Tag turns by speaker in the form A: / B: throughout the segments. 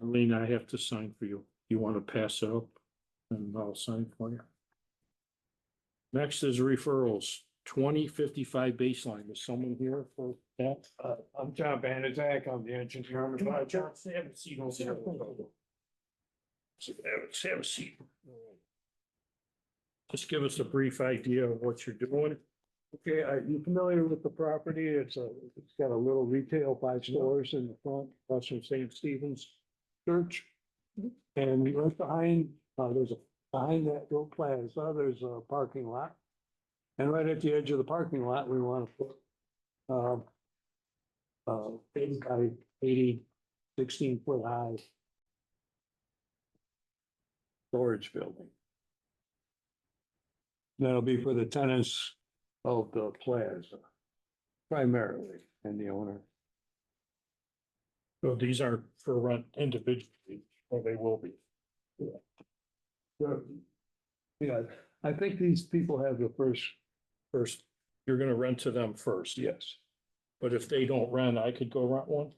A: Lean, I have to sign for you. You want to pass it up? And I'll sign for you. Next is referrals, twenty fifty-five baseline. Is someone here for that?
B: Uh, I'm John Banizak, I'm the engineer on the project.
A: have a seat.
B: over there.
A: Have a seat. Just give us a brief idea of what you're doing.
B: Okay, are you familiar with the property? It's a, it's got a little retail, five stores in the front, plus from St. Stephen's Church. And right behind, uh, there's a, behind that little plaza, there's a parking lot. And right at the edge of the parking lot, we want to put, um, uh, eight by eighty, sixteen foot high storage building. That'll be for the tenants of the plaza primarily and the owner.
A: So these aren't for rent individually, or they will be.
B: Yeah, I think these people have the first,
A: First, you're gonna rent to them first.
B: yes.
A: But if they don't rent, I could go rent one?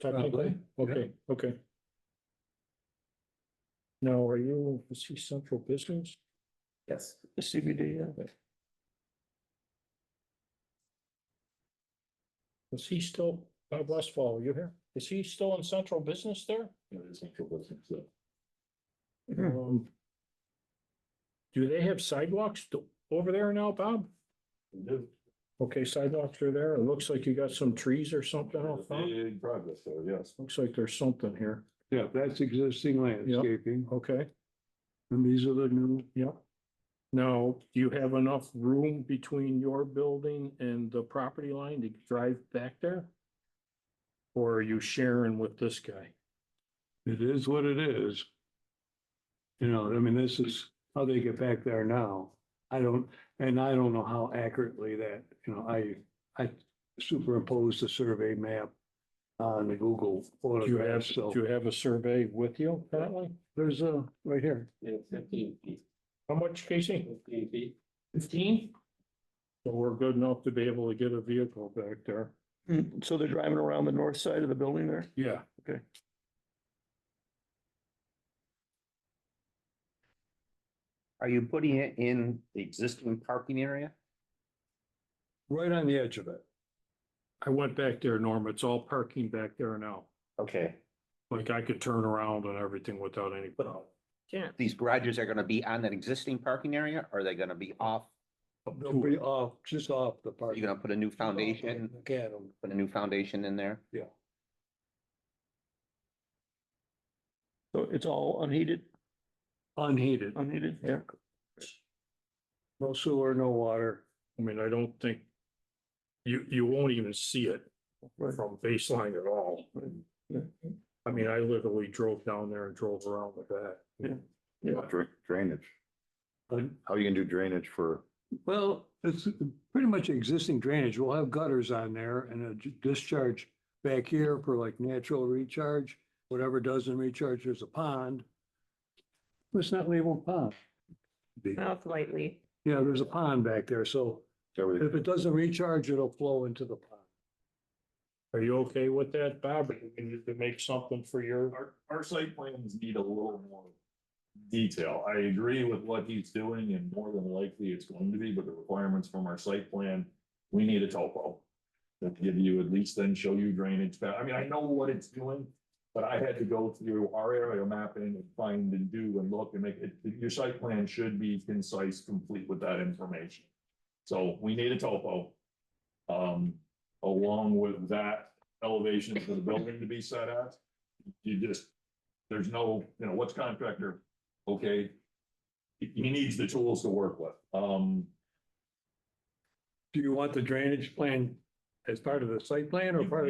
A: Technically,
B: Probably, yeah.
A: okay, okay. Now, are you, is he central business?
C: Yes.
A: The CBD, yeah. Is he still, Bob Westfall, are you here? Is he still in central business there?
B: Mm-hmm.
C: Mhm.
A: Um, Do they have sidewalks to- over there now, Bob? Okay, sidewalks are there. It looks like you got some trees or something out front.
D: In progress, so yes.
A: Looks like there's something here.
B: Yeah, that's existing landscaping
A: Okay,
B: and these are the new,
A: yeah. Now, do you have enough room between your building and the property line to drive back there? Or are you sharing with this guy?
B: it is what it is. You know, I mean, this is how they get back there now. I don't, and I don't know how accurately that, you know, I, I superimposed the survey map on the Google
A: Do you
B: photograph,
A: have,
B: so
A: do you have a survey with you currently?
B: there's a, right here.
C: Fifteen feet.
A: How much, Casey?
C: Fifteen feet. Fifteen?
A: So we're good enough to be able to get a vehicle back there?
E: Mm, So they're driving around the north side of the building there?
A: Yeah.
E: Okay.
C: Are you putting it in the existing parking area?
B: Right on the edge of it.
A: I went back there, Norm. It's all parking back there now.
C: Okay,
A: Like I could turn around and everything without any problem. Can't.
C: these garages are gonna be on that existing parking area, or are they gonna be off?
B: They'll be off, just off the park.
C: You're gonna put a new foundation,
B: Get them.
C: put a new foundation in there?
E: So it's all unheated,
B: Unheated,
E: unheated, yeah.
B: no sewer, no water.
A: I mean, I don't think you, you won't even see it
E: Right.
A: from baseline at all. I mean, I literally drove down there and drove around with that.
E: Yeah.
D: Dra- Drainage.
B: Pardon?
D: How you can do drainage for,
B: Well, it's uh, pretty much existing drainage. We'll have gutters on there and a j- discharge back here for like natural recharge. Whatever doesn't recharge, there's a pond. Let's not label pond. Be-
F: Mouth lightly.
B: Yeah, there's a pond back there, so
D: so we-
B: if it doesn't recharge, it'll flow into the pond.
A: Are you okay with that, Bob? Or you need to make something for your,
D: Our, our site plans need a little more detail. I agree with what he's doing and more than likely it's going to be, but the requirements from our site plan, we need a topo. That give you at least then show you drainage. pa- I mean, I know what it's doing, but I had to go through our aerial mapping and find and do and look and make it, your site plan should be concise, complete with that information. So we need a topo. Um, along with that elevation for the building to be set at you just, there's no, you know, what's contractor, okay? He, he needs the tools to work with, um,
B: Do you want the drainage plan as part of the site plan or part of